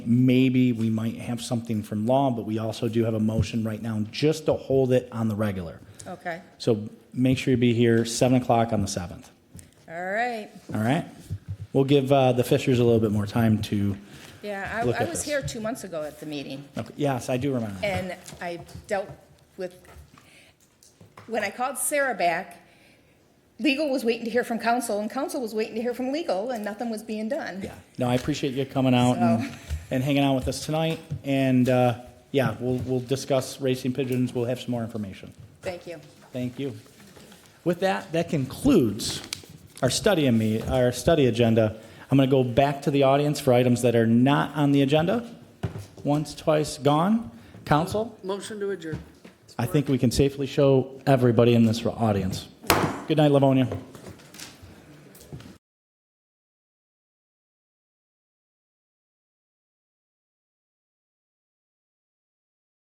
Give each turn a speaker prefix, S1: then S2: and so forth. S1: maybe we might have something from law, but we also do have a motion right now just to hold it on the regular.
S2: Okay,
S1: So make sure you be here 7 o'clock on the 7th,
S2: all right.
S1: all right? We'll give uh, the Fishers a little bit more time to,
S2: Yeah,
S1: Look
S2: I, I
S1: at
S2: was
S1: this.
S2: here two months ago at the meeting,
S1: okay, yes, I do remember.
S2: and I dealt with, when I called Sarah back, legal was waiting to hear from council, and council was waiting to hear from legal, and nothing was being done.
S1: Yeah, no, I appreciate you coming out and, and hanging out with us tonight. And, uh, yeah, we'll, we'll discuss racing pigeons. We'll have some more information.
S2: Thank you.
S1: Thank you. With that, that concludes our study and me, our study agenda. I'm going to go back to the audience for items that are not on the agenda. Once, twice, gone. Council,
S3: Motion to adjourn.
S1: I think we can safely show everybody in this audience. Good night, Livonia.